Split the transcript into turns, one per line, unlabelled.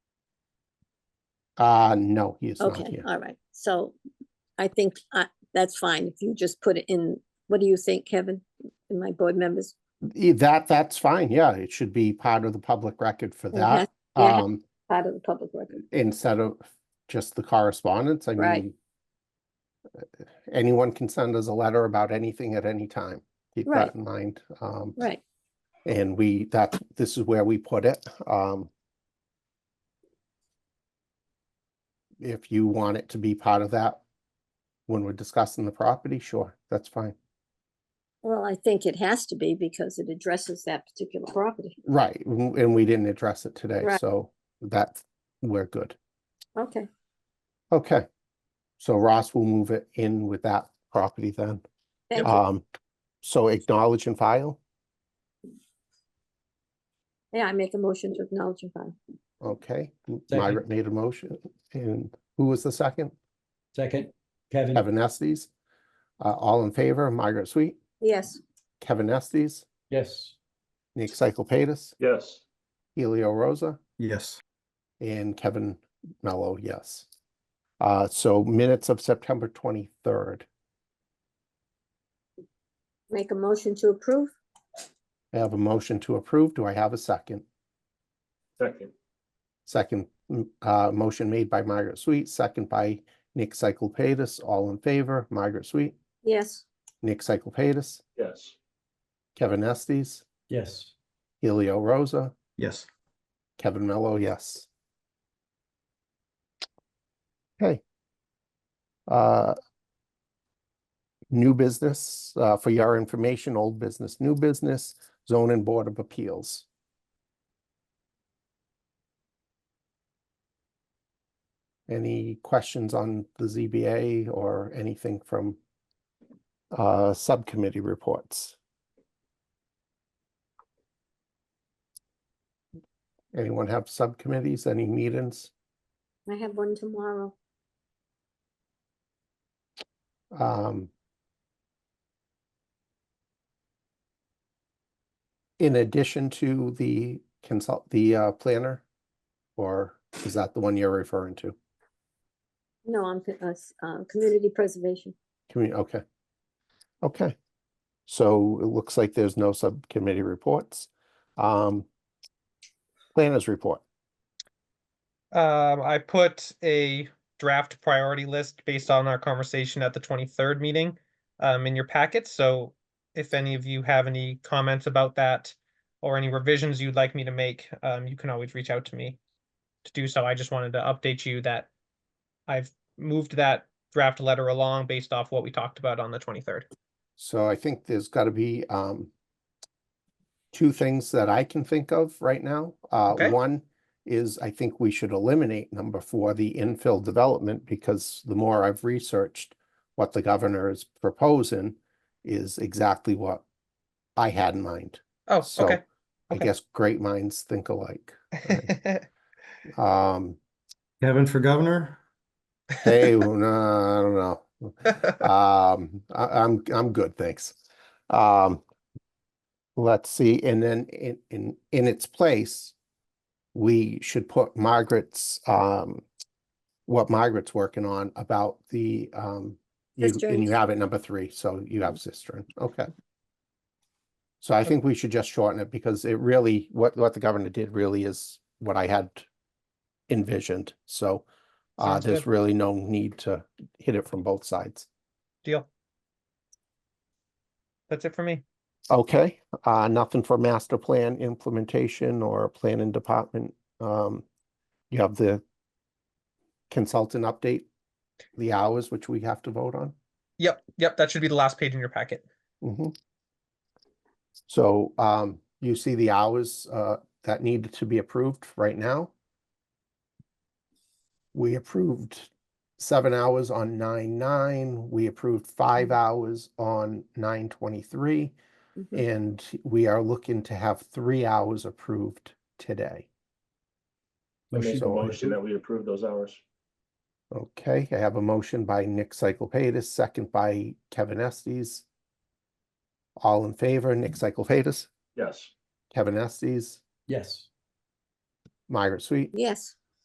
Uh, no, he is not
Okay,
here.
all right. So I think uh, that's fine. If you just put it in, what do you think, Kevin? And my board members?
E- That, that's fine, yeah, it should be part of the public record for
It has
that.
yeah, it has-
Um,
Part of the public record.
instead of just the correspondence, I
Right.
mean. uh, Anyone can send us a letter about anything at any time, keep
Right.
that in mind. Um,
Right,
and we, that, this is where we put it, um. If you want it to be part of that, when we're discussing the property, sure, that's fine.
well, I think it has to be because it addresses that particular property.
Right, w- and we didn't address it today,
Right.
so that's, we're good.
Okay,
Okay. So Ross will move it in with that property then.
thank you.
Um, so acknowledge and file,
Yeah, I make a motion to acknowledge and file.
okay. M-
Second.
Margaret made a motion, and who was the second?
Second, Kevin,
Kevin Estes. Uh, all in favor, Margaret Sweet,
Yes,
Kevin Estes,
yes,
Nick Cyclepatis,
yes,
Helio Rosa,
yes,
and Kevin Mello, yes. Uh, so minutes of September twenty-third.
make a motion to approve.
I have a motion to approve. Do I have a second?
second,
Second, m- uh, motion made by Margaret Sweet, second by Nick Cyclepatis, all in favor, Margaret Sweet,
Yes,
Nick Cyclepatis,
yes,
Kevin Estes,
yes,
Helio Rosa,
yes.
Kevin Mello, yes. Okay. Uh, New business, uh, for your information, old business, new business, zoning board of appeals. Any questions on the ZBA or anything from uh, subcommittee reports? Anyone have subcommittees, any meetings?
I have one tomorrow.
um, in addition to the consult, the uh, planner? Or is that the one you're referring to?
No, I'm, co- uh, s- uh, community preservation.
Commu- okay. Okay. So it looks like there's no subcommittee reports. Um, planners report.
Um, I put a draft priority list based on our conversation at the twenty-third meeting, um, in your packet, so if any of you have any comments about that or any revisions you'd like me to make, um, you can always reach out to me to do so. I just wanted to update you that I've moved that draft letter along based off what we talked about on the twenty-third.
So I think there's got to be um two things that I can think of right now. Uh,
Okay.
one is I think we should eliminate number four, the infill development, because the more I've researched what the governor is proposing is exactly what I had in mind.
Oh,
So
okay.
I
Okay.
guess great minds think alike. Um,
Kevin for governor?
hey, well, no, I don't know. Um, I, I'm, I'm good, thanks. Um, let's see, and then in, in, in its place, we should put Margaret's, um, what Margaret's working on about the, um, you, and
Cisterns.
you have it number three, so you
Mm-hmm.
have cistern, okay. So I think we should just shorten it because it really, what, what the governor did really is what I had envisioned, so uh,
Sounds
there's
good.
really no need to hit it from both sides.
Deal. That's it for me.
Okay, uh, nothing for master plan implementation or planning department. Um, you have the consultant update, the hours which we have to vote on.
Yep, yep, that should be the last page in your packet.
Mhm. So, um, you see the hours, uh, that needed to be approved right now. We approved seven hours on nine nine, we approved five hours on nine twenty-three.
Mhm.
And we are looking to have three hours approved today.
I make a
Motion.
motion that we approve those hours,
Okay, I have a motion by Nick Cyclepatis, second by Kevin Estes. All in favor, Nick Cyclepatis,
yes,
Kevin Estes,
yes,
Margaret Sweet,
Yes,